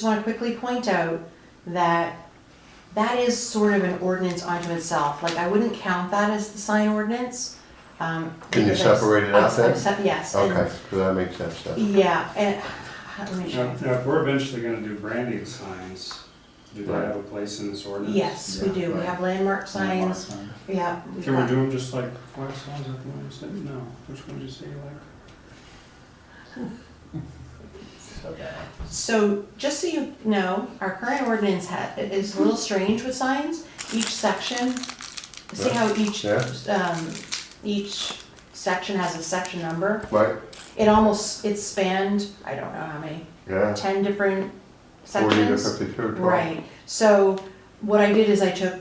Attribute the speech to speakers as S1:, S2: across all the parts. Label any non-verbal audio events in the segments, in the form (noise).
S1: Just want to quickly point out that that is sort of an ordinance unto itself. Like, I wouldn't count that as the sign ordinance. um,
S2: Can you
S1: because I-
S2: separate it out then?
S1: I- I sep- Yes. and-
S2: Okay, so that makes sense then.
S1: Yeah, and, let me
S3: Now,
S1: check.
S3: now, if we're eventually gonna do branding signs, do they have a place in this ordinance?
S1: Yes, we do. We have landmark signs, yeah. we've
S3: Can we
S1: got-
S3: do them just like last signs, I think you said, no, which one did you say you like?
S1: So, just so you know, our current ordinance ha- is a little strange with signs. Each section, see how each,
S2: Yeah.
S1: um, each section has a section number?
S2: Right,
S1: It almost, it spanned, I don't know how many,
S2: yeah,
S1: ten different
S2: forty to
S1: sections.
S2: fifty-two, twelve.
S1: Right, so what I did is I took,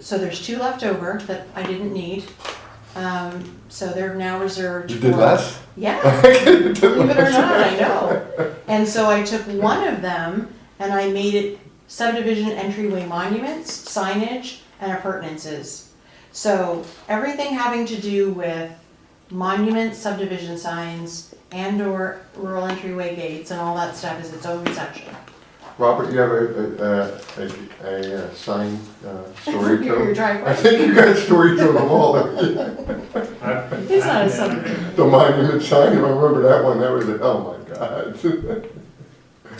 S1: so there's two left over that I didn't need. Um, so they're now reserved.
S2: You did
S1: for-
S2: less? (laughs)
S1: Yeah,
S2: Believe
S1: believe it or not, I know. And so I took one of them and I made it subdivision entryway monuments, signage, and appurtenances. So everything having to do with monuments, subdivision signs, and/or rural entryway gates and all that stuff is its own section.
S2: Robert, you have a, a, a, a, uh sign, uh,
S1: (laughs)
S2: story to?
S1: Your driveway.
S2: I think you got a story to the wall, (laughs) the
S3: I-
S1: It's not
S3: I-
S1: a subdivision.
S2: monument sign, I remember that one, that was, a- oh my god. (laughs)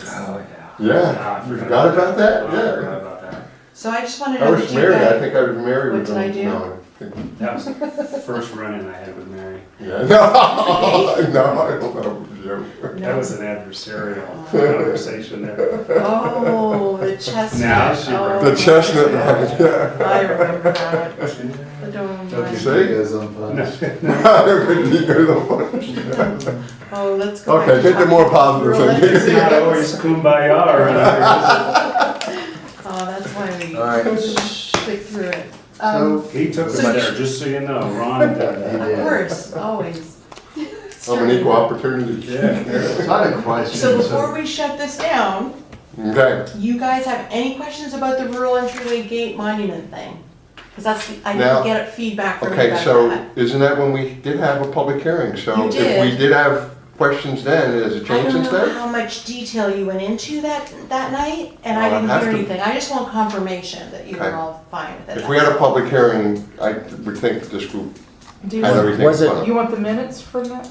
S4: Oh, yeah.
S2: Yeah,
S3: Ah, I
S2: you forgot about that,
S3: I
S2: yeah.
S3: forgot about that.
S1: So I just wanted to
S2: I
S1: know
S2: was
S1: that you
S2: married, I
S1: guys.
S2: think I was married
S1: What
S2: with
S1: did I
S2: them.
S1: do?
S2: No, think-
S3: That was the first run-in I had with Mary.
S1: (laughs)
S2: Yeah, (laughs) no, no, I don't know, Joe.
S3: That was an adversarial conversation there.
S1: Oh, the chestnut.
S3: (laughs) Now she
S1: Oh,
S2: The chestnut, (laughs) line, yeah.
S1: I remember
S3: (laughs)
S1: that. The dome.
S2: You
S1: line.
S2: see? (laughs)
S4: on
S1: Oh, let's go.
S2: Okay,
S1: back
S2: get
S1: to
S2: the more positive (laughs)
S3: It's
S2: thing.
S3: not always kumbaya around
S2: (laughs)
S1: Oh, that's why we
S4: Alright.
S1: clicked through it. Um,
S3: here. He took us
S1: So you-
S3: there, just so you know, Ron did that.
S1: of
S4: yeah.
S1: course, always.
S2: I'm an equal opportunity.
S4: It's not a question.
S1: So before we shut this down,
S2: Okay,
S1: you guys have any questions about the rural entryway gate monument thing? Because that's, the- I
S2: Now-
S1: didn't get feedback from you
S2: okay,
S1: about
S2: so
S1: that.
S2: isn't that when we did have a public hearing? So
S1: You
S2: if
S1: did.
S2: we did have questions then, has it
S1: I
S2: changed
S1: don't
S2: since
S1: know
S2: then?
S1: how much detail you went into that, that night, and I
S2: Well, I'd
S1: didn't
S2: have
S1: hear
S2: to-
S1: anything. I just want confirmation that you were
S2: Okay.
S1: all fine with it.
S2: If we had a public hearing, I would think this group
S5: Do you
S2: had
S5: want,
S2: everything.
S4: was it-
S2: covered.
S5: you want the minutes from that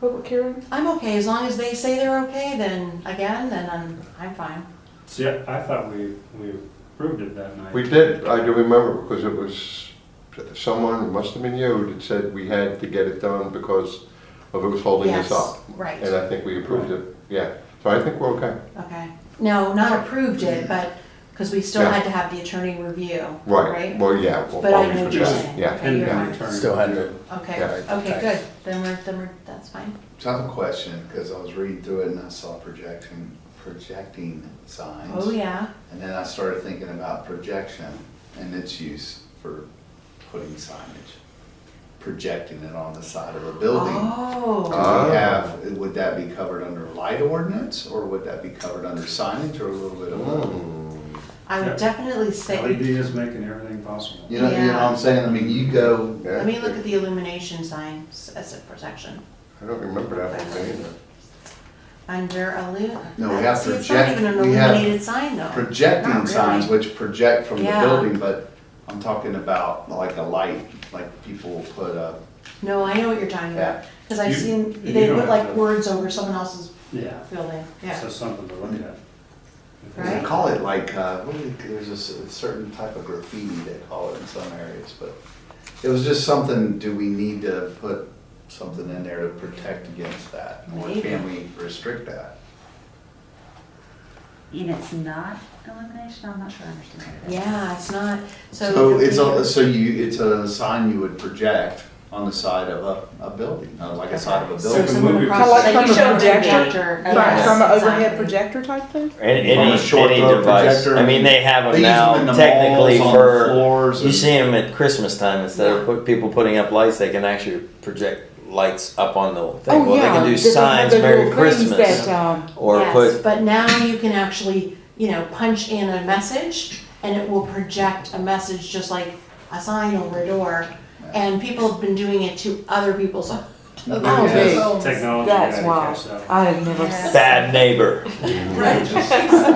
S5: public hearing?
S1: I'm okay, as long as they say they're okay, then again, then I'm, I'm fine.
S3: See, I I thought we, we approved it that night.
S2: We did, I do remember, because it was someone, it must have been you, that said we had to get it done because of it was holding us
S1: Yes,
S2: up.
S1: Right.
S2: And I think we approved it, yeah. So I think we're okay.
S1: Okay, no, not approved
S4: Mm-hmm.
S1: it, but, because we still
S2: Yeah.
S1: had to have the attorney review,
S2: Right,
S1: right?
S2: well, yeah, we'll
S1: But I
S2: always
S1: know what
S2: do
S1: you're
S2: that.
S1: saying.
S2: yeah.
S1: Okay,
S3: And
S1: you're
S3: the
S1: fine.
S3: return.
S4: Still had to.
S1: Okay,
S2: Yeah.
S1: okay, good, then we're, then we're, that's fine.
S4: Tough question, because I was reading through it and I saw projecting, projecting signs.
S1: Oh, yeah,
S4: And then I started thinking about projection and its use for putting signage, projecting it on the side of a building. Do
S1: oh,
S2: Ah.
S4: we have, would that be covered under light ordinance, or would that be covered under signage, or a little bit of both?
S2: Mm.
S1: I would definitely
S3: LED
S1: say,
S3: E is making everything possible.
S4: You know, you know what I'm saying? I mean, you go,
S1: let me look at the illumination signs as a protection,
S2: I don't remember that one either.
S1: under illu.
S4: No, we have
S1: See, It's not
S4: project-
S1: even an
S4: we have
S1: illuminated sign though. Oh. Not
S4: projecting
S1: really.
S4: signs, which project from the
S1: Yeah.
S4: building, but I'm talking about like a light, like people will put up.
S1: No, I know what you're talking about, because I've
S3: You-
S1: seen,
S3: you
S1: they
S3: don't
S1: put
S3: have
S1: like
S3: to-
S1: words over someone else's
S3: Yeah,
S1: building,
S3: so
S1: yeah,
S3: something to look at.
S4: They
S1: Right.
S4: call it like, uh, what do they- there's a cer- certain type of graffiti they call it in some areas, but it was just something, do we need to put something in there to protect against that? Or
S1: Maybe.
S4: can we restrict that?
S6: And it's not illumination, I'm not sure I understand what it is.
S1: yeah, it's not, so. it
S4: So
S1: could
S4: it's,
S1: be-
S4: a- so you, it's a sign you would project on the side of a, a building, uh, like a side of a
S1: So
S4: building.
S1: someone
S3: movie
S1: across,
S5: projector.
S1: like you showed the
S5: Projector.
S1: projector.
S5: Like
S1: yes,
S5: from an overhead
S1: exactly.
S5: projector type thing?
S7: Any,
S4: From a
S7: any,
S4: short
S7: any
S4: throw
S7: device.
S4: projector.
S7: I mean, they have
S4: They
S7: them
S4: use
S7: now
S4: them in the
S7: technically
S4: malls, on the
S7: for.
S4: floors
S7: You
S4: and-
S7: see them at Christmas time instead of put, people putting up lights, they can actually project lights up on the thing.
S5: Oh,
S7: well,
S5: yeah.
S7: they can do
S5: They have
S7: signs,
S5: the
S7: Merry
S5: little things
S7: Christmas,
S5: That, um,
S7: or
S1: yes,
S7: put.
S1: But now you can actually, you know, punch in a message and it will project a message just like a sign over a door. And people have been doing it to other people's
S4: Oh, big.
S5: Technology
S7: That's
S5: guy to
S7: why.
S5: catch that.
S7: I have never
S8: Yes.
S3: Bad neighbor.
S9: Right.